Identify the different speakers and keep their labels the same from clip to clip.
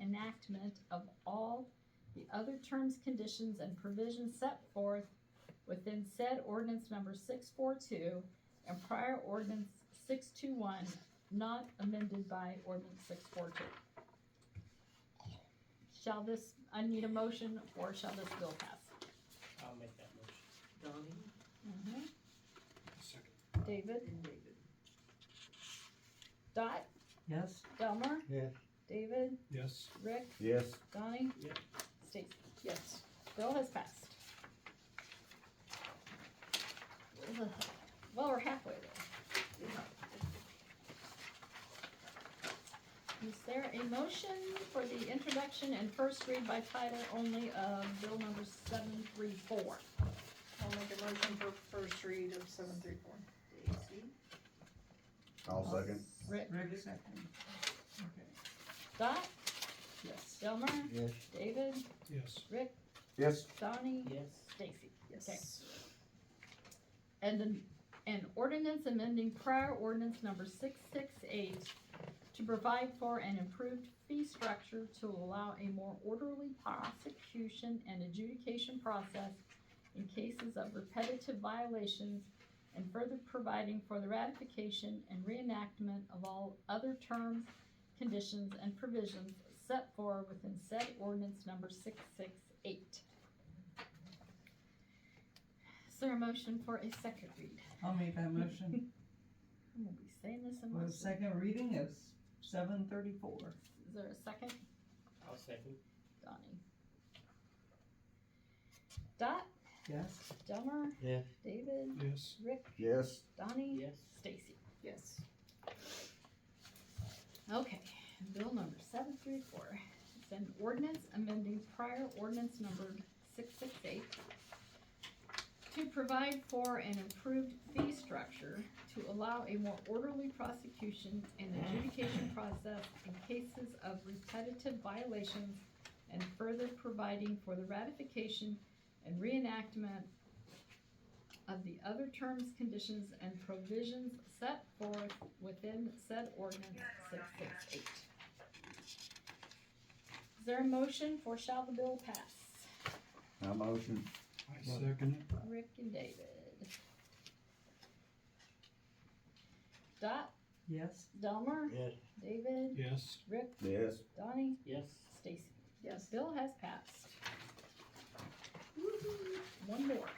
Speaker 1: enactment of all the other terms, conditions, and provisions set forth within said ordinance number six four two and prior ordinance six two one, not amended by ordinance six four two. Shall this, I need a motion, or shall this bill pass?
Speaker 2: I'll make that motion.
Speaker 3: Donnie
Speaker 4: Second.
Speaker 1: David?
Speaker 3: and David.
Speaker 1: Dot?
Speaker 2: Yes.
Speaker 1: Delmer?
Speaker 4: Yeah.
Speaker 1: David?
Speaker 4: Yes.
Speaker 1: Rick?
Speaker 5: Yes.
Speaker 1: Donnie?
Speaker 2: Yep.
Speaker 1: Stacy?
Speaker 3: Yes.
Speaker 1: Bill has passed. Well, we're halfway there. Is there a motion for the introduction and first read by title only of bill number seven three four?
Speaker 6: I'll make a motion for first read of seven three four.
Speaker 3: Stacy,
Speaker 5: I'll second.
Speaker 1: Rick,
Speaker 3: Rick second. Okay.
Speaker 1: Dot,
Speaker 3: Yes.
Speaker 1: Delmer,
Speaker 5: Yes.
Speaker 1: David,
Speaker 4: Yes.
Speaker 1: Rick,
Speaker 5: Yes.
Speaker 1: Donnie,
Speaker 2: Yes.
Speaker 1: Stacy.
Speaker 6: Yes.
Speaker 1: And an, an ordinance amending prior ordinance number six six eight to provide for an improved fee structure to allow a more orderly prosecution and adjudication process in cases of repetitive violations and further providing for the ratification and reenactment of all other terms, conditions, and provisions set forth within said ordinance number six six eight. Is there a motion for a second read?
Speaker 3: I'll make that motion.
Speaker 1: I'm gonna be saying this in my
Speaker 3: Well,
Speaker 1: sleep.
Speaker 3: second reading is seven thirty-four.
Speaker 1: Is there a second?
Speaker 2: I'll second.
Speaker 1: Donnie. Dot,
Speaker 3: Yes.
Speaker 1: Delmer.
Speaker 2: Yeah.
Speaker 1: David,
Speaker 4: Yes.
Speaker 1: Rick,
Speaker 5: Yes.
Speaker 1: Donnie.
Speaker 2: Yes.
Speaker 1: Stacy.
Speaker 6: Yes.
Speaker 1: Okay, bill number seven three four. It's an ordinance amending prior ordinance number six six eight to provide for an improved fee structure to allow a more orderly prosecution and adjudication process in cases of repetitive violations and further providing for the ratification and reenactment of the other terms, conditions, and provisions set forth within said ordinance six six eight. Is there a motion for shall the bill pass?
Speaker 5: I motion.
Speaker 4: I second it.
Speaker 1: Rick and David. Dot,
Speaker 3: Yes.
Speaker 1: Delmer,
Speaker 2: Yes.
Speaker 1: David,
Speaker 4: Yes.
Speaker 1: Rick,
Speaker 5: Yes.
Speaker 1: Donnie,
Speaker 2: Yes.
Speaker 1: Stacy.
Speaker 6: Yes.
Speaker 1: Bill has passed. Woo-hoo. One more.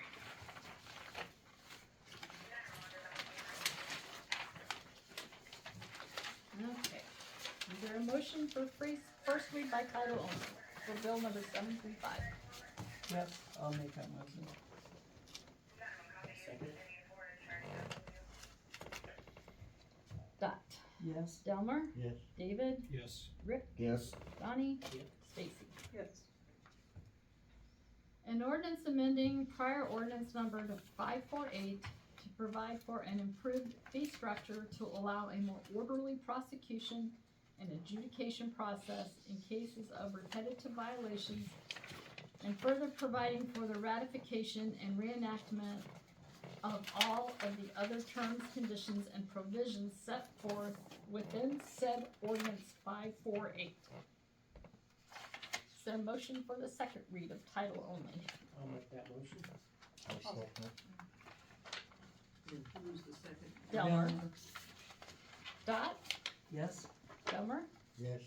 Speaker 1: Okay, is there a motion for free, first read by title only for bill number seven three five?
Speaker 3: Yes, I'll make that motion.
Speaker 2: Second.
Speaker 1: Dot,
Speaker 3: Yes.
Speaker 1: Delmer,
Speaker 2: Yes.
Speaker 1: David,
Speaker 4: Yes.
Speaker 1: Rick,
Speaker 5: Yes.
Speaker 1: Donnie,
Speaker 2: Yep.
Speaker 1: Stacy.
Speaker 6: Yes.
Speaker 1: An ordinance amending prior ordinance number five four eight to provide for an improved fee structure to allow a more orderly prosecution and adjudication process in cases of repetitive violations, and further providing for the ratification and reenactment of all of the other terms, conditions, and provisions set forth within said ordinance five four eight. Is there a motion for the second read of title only?
Speaker 2: I'll make that motion.
Speaker 3: And who's the second?
Speaker 1: Delmer. Dot,
Speaker 3: Yes.
Speaker 1: Delmer,
Speaker 5: Yes.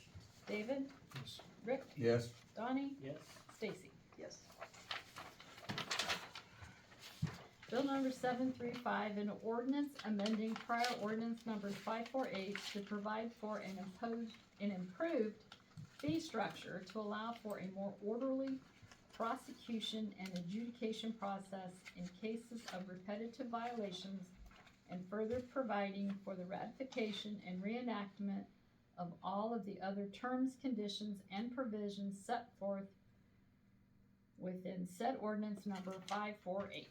Speaker 1: David,
Speaker 4: Yes.
Speaker 1: Rick,
Speaker 5: Yes.
Speaker 1: Donnie,
Speaker 2: Yes.
Speaker 1: Stacy.
Speaker 6: Yes.
Speaker 1: Bill number seven three five, an ordinance amending prior ordinance number five four eight to provide for an imposed, an improved fee structure to allow for a more orderly prosecution and adjudication process in cases of repetitive violations and further providing for the ratification and reenactment of all of the other terms, conditions, and provisions set forth within said ordinance number five four eight.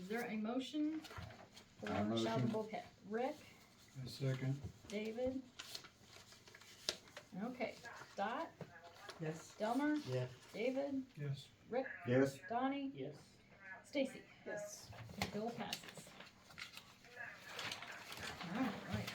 Speaker 1: Is there a motion for
Speaker 5: I motion.
Speaker 1: shall the bill pass? Rick,
Speaker 4: I second.
Speaker 1: David? Okay, Dot,
Speaker 3: Yes.
Speaker 1: Delmer,
Speaker 2: Yes.
Speaker 1: David,
Speaker 4: Yes.
Speaker 1: Rick,
Speaker 5: Yes.
Speaker 1: Donnie,
Speaker 2: Yes.
Speaker 1: Stacy.
Speaker 6: Yes.
Speaker 1: The bill passes. All right.